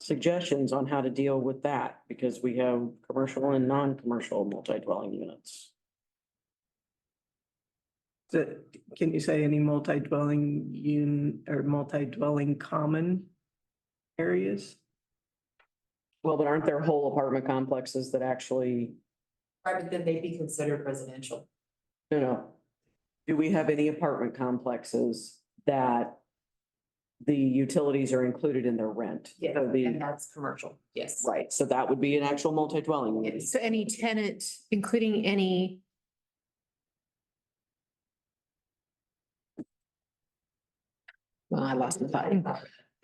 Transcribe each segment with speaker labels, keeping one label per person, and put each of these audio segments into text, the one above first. Speaker 1: suggestions on how to deal with that, because we have commercial and non-commercial multi-dwelling units.
Speaker 2: So can you say any multi-dwelling un, or multi-dwelling common areas?
Speaker 1: Well, but aren't there whole apartment complexes that actually,
Speaker 3: Right, but then they'd be considered residential.
Speaker 1: no, no. Do we have any apartment complexes that the utilities are included in their rent?
Speaker 3: Yeah,
Speaker 1: So the-
Speaker 3: and that's commercial, yes.
Speaker 1: Right, so that would be an actual multi-dwelling unit.
Speaker 4: So any tenant, including any. Well, I lost my thought.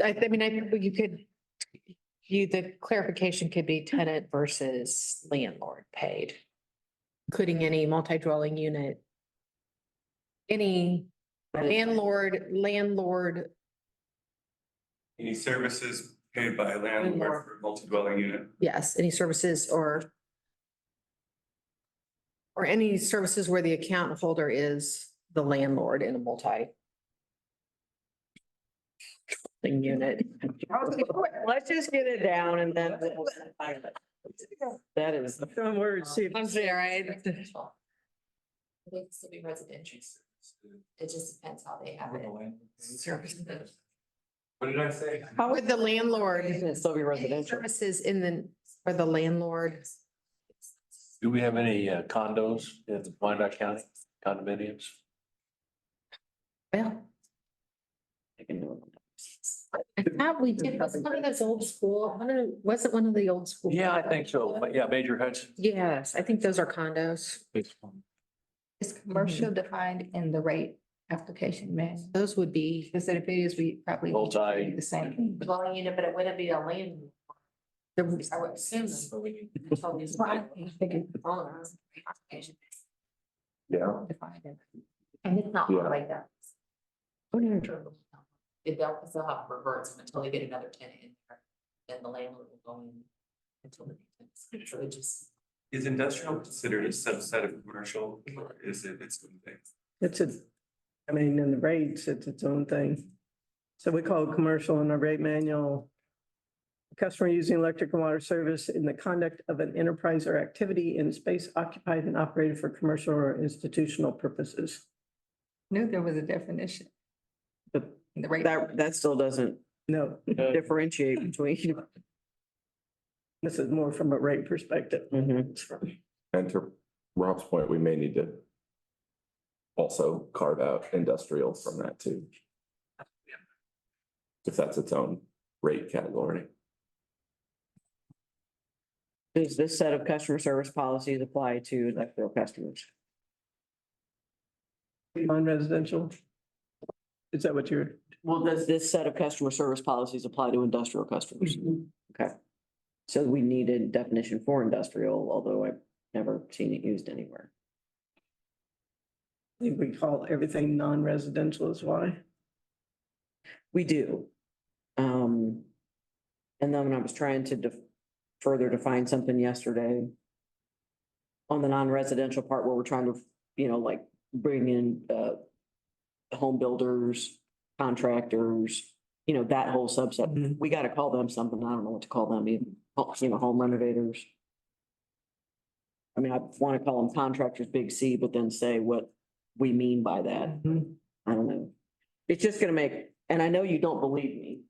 Speaker 4: I, I mean, I, you could, you, the clarification could be tenant versus landlord paid. Including any multi-dwelling unit. Any landlord, landlord,
Speaker 5: Any services paid by a landlord for a multi-dwelling unit?
Speaker 4: yes, any services or. Or any services where the account holder is the landlord in a multi. Thing unit.
Speaker 1: Let's just get it down and then. That is.
Speaker 2: Some words, see if
Speaker 4: I'm sorry, I-
Speaker 3: Residential. They can still be residential. It just depends how they have it. Services.
Speaker 5: What did I say?
Speaker 1: How
Speaker 4: With the landlord,
Speaker 1: Can it still be
Speaker 4: any
Speaker 1: residential?
Speaker 4: services in the, for the landlord,
Speaker 6: Do we have any uh, condos in Wyandotte County condominiums?
Speaker 4: well,
Speaker 1: I can do it.
Speaker 4: I thought we did, was one of those old school, one of, was it one of the old school?
Speaker 6: Yeah, I think so. But yeah, Major Hudson.
Speaker 4: Yes, I think those are condos. Mm-hmm.
Speaker 7: Is commercial defined in the rate application manual?
Speaker 4: Those would be,
Speaker 7: Because if it is, we probably. need to
Speaker 6: Multi-
Speaker 7: do The same thing.
Speaker 3: Dwelling unit, but it wouldn't be a land,
Speaker 4: the
Speaker 3: I would assume. until these- Owners.
Speaker 6: Yeah.
Speaker 7: Defined in-
Speaker 3: And it's not
Speaker 6: Yeah.
Speaker 3: like that.
Speaker 4: Oh,
Speaker 3: It they'll still have reverts until they get another tenant in there, then the landlord will go in until the. tenant's- So it just.
Speaker 5: Is industrial considered a subset of commercial or is it its own thing?
Speaker 2: it's a, I mean, in the rates, it's its own thing. So we call it commercial in our rate manual. Customer using electric and water service in the conduct of an enterprise or activity in space occupied and operated for commercial or institutional purposes.
Speaker 7: Knew there was a definition.
Speaker 1: But
Speaker 7: in the rate.
Speaker 1: That, that still doesn't
Speaker 2: No,
Speaker 1: differentiate between.
Speaker 2: this is more from a rate perspective.
Speaker 1: Mhm.
Speaker 8: And to Rob's point, we may need to also carve out industrial from that too. If that's its own rate category.
Speaker 1: Does this set of customer service policies apply to industrial customers?
Speaker 2: Non-residential? Is that what you're?
Speaker 1: Well, does this set of customer service policies apply to industrial customers? Mm-hmm. Okay. So we needed definition for industrial, although I've never seen it used anywhere.
Speaker 2: I think we call everything non-residential is why.
Speaker 1: We do. Um, and then when I was trying to def- further define something yesterday on the non-residential part where we're trying to, you know, like bring in, uh, home builders, contractors, you know, that whole subset. We gotta call them something. I don't know what to call them, even, oh, you know, home renovators. I mean, I wanna call them contractors, big C, but then say what we mean by that.
Speaker 2: Mhm.
Speaker 1: I don't know. It's just gonna make, and I know you don't believe me.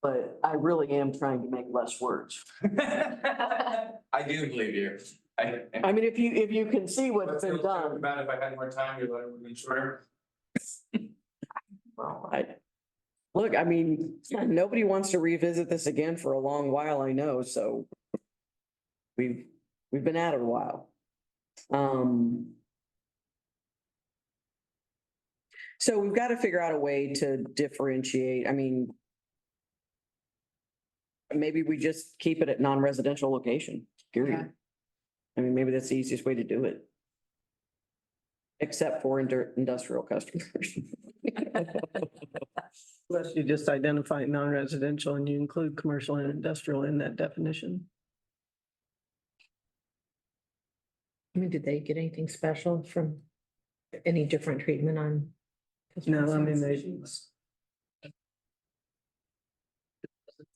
Speaker 1: But I really am trying to make less words.
Speaker 5: I do believe you. I.
Speaker 1: I mean, if you, if you can see what's
Speaker 5: What's
Speaker 1: been
Speaker 5: your take
Speaker 1: done,
Speaker 5: About if I had more time, your letter would have been shorter.
Speaker 3: Well,
Speaker 1: I. Look, I mean, nobody wants to revisit this again for a long while, I know, so. We've, we've been at it a while. Um. So we've got to figure out a way to differentiate, I mean. Maybe we just keep it at non-residential location,
Speaker 4: Yeah.
Speaker 1: period. I mean, maybe that's the easiest way to do it. Except for indu- industrial customers.
Speaker 2: Unless you just identify non-residential and you include commercial and industrial in that definition.
Speaker 4: I mean, did they get anything special from any different treatment on?
Speaker 2: No, I mean, they